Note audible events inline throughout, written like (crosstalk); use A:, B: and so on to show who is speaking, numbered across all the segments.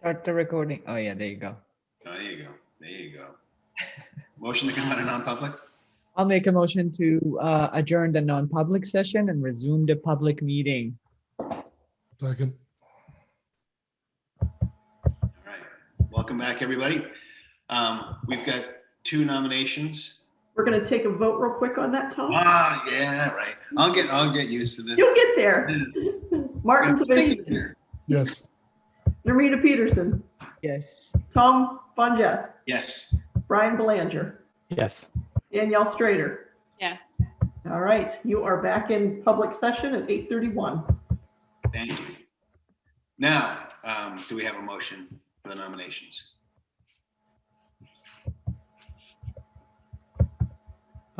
A: Start the recording. Oh, yeah, there you go.
B: Oh, there you go. There you go. Motion to come out of non-public?
A: I'll make a motion to uh, adjourn the non-public session and resume the public meeting.
C: Second.
B: All right. Welcome back, everybody. Um, we've got two nominations.
D: We're gonna take a vote real quick on that, Tom.
B: Ah, yeah, right. I'll get, I'll get used to this.
D: You'll get there. (laughs) Martin Tavishian,
C: Yes.
D: Nermina Peterson,
A: Yes.
D: Tom Bonjess,
B: Yes.
D: Brian Belanger,
E: Yes.
D: Danielle Strader.
F: Yes.
D: All right, you are back in public session at 8:31.
B: Thank you. Now, um, do we have a motion for the nominations?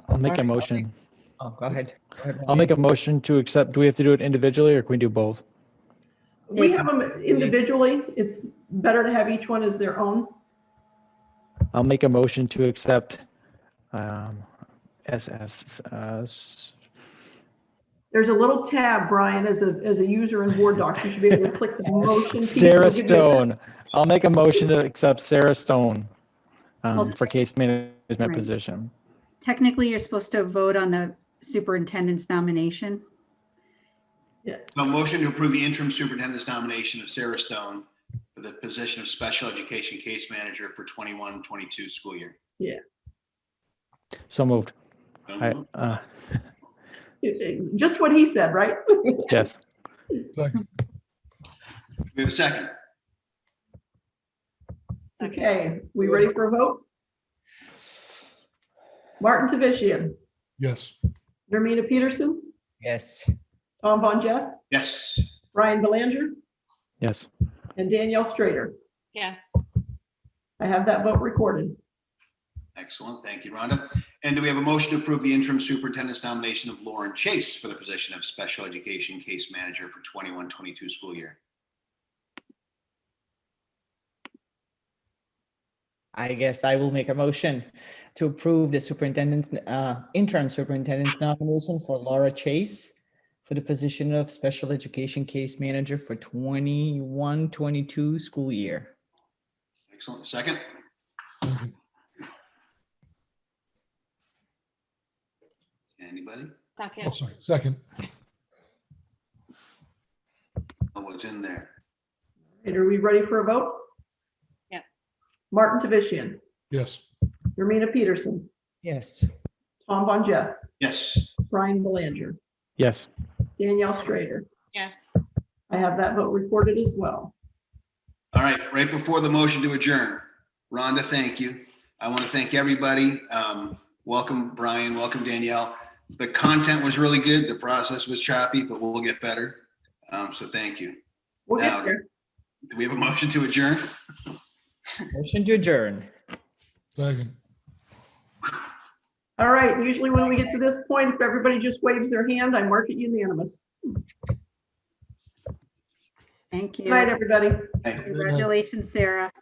E: I'll make
A: Alright,
E: a
A: I'll make-
E: motion.
A: Oh, go ahead. Go ahead,
E: I'll make a motion to accept. Do we have to do it individually or can we do both?
D: We have them individually. It's better to have each one as their own.
E: I'll make a motion to accept um, SS. Uh, s-
D: There's a little tab, Brian, as a, as a user in Word Docs. You should be able to click the motion. piece.
E: Sarah
D: It'll give you-
E: Stone. I'll make a motion to accept Sarah Stone um,
F: I'll-
E: for case management
F: Right.
E: position.
F: Technically, you're supposed to vote on the superintendent's nomination.
B: So a motion to approve the interim superintendent's nomination of Sarah Stone for the position of special education case manager for 21-22 school year.
E: So moved.
B: So
E: I,
B: moved.
E: uh,
D: (laughs)
E: (laughs)
D: Just what he said, right?
E: yes.
D: (laughs)
C: Second.
B: We have a second.
D: Okay, we ready for a vote? Martin Tavishian,
C: Yes.
D: Nermina Peterson,
A: Yes.
D: Tom Von Jess,
B: Yes.
D: Brian Belanger,
E: Yes.
D: and Danielle Strader.
F: Yes.
D: I have that vote recorded.
B: Excellent. Thank you, Rhonda. And do we have a motion to approve the interim superintendent's nomination of Lauren Chase for the position of special education case manager for 21-22 school year?
A: I guess I will make a motion to approve the superintendent's, uh, interim superintendent's nomination for Laura Chase for the position of special education case manager for 21, 22 school year.
B: Excellent. Second,
C: Second.
B: anybody?
C: Oh, sorry. Second.
B: Oh, what's in there?
D: And are we ready for a vote?
F: Yeah.
D: Martin Tavishian,
C: Yes.
D: Nermina Peterson,
A: Yes.
D: Tom Von Jess,
B: Yes.
D: Brian Belanger,
E: Yes.
D: Danielle Strader.
F: Yes.
D: I have that vote recorded as well.
B: All right, right before the motion to adjourn, Rhonda, thank you. I want to thank everybody. Um, Welcome, Brian. Welcome, Danielle. The content was really good. The process was choppy, but we'll get better. Um, So thank you.
D: We'll
B: Now-
D: get there.
B: Do we have a motion to adjourn?
A: Motion to adjourn.
C: Second.
D: All right, usually when we get to this point, if everybody just waves their hand, I mark it unanimous.
F: Thank
D: Good night,
F: you.
D: everybody.
F: Congratulations, Sarah.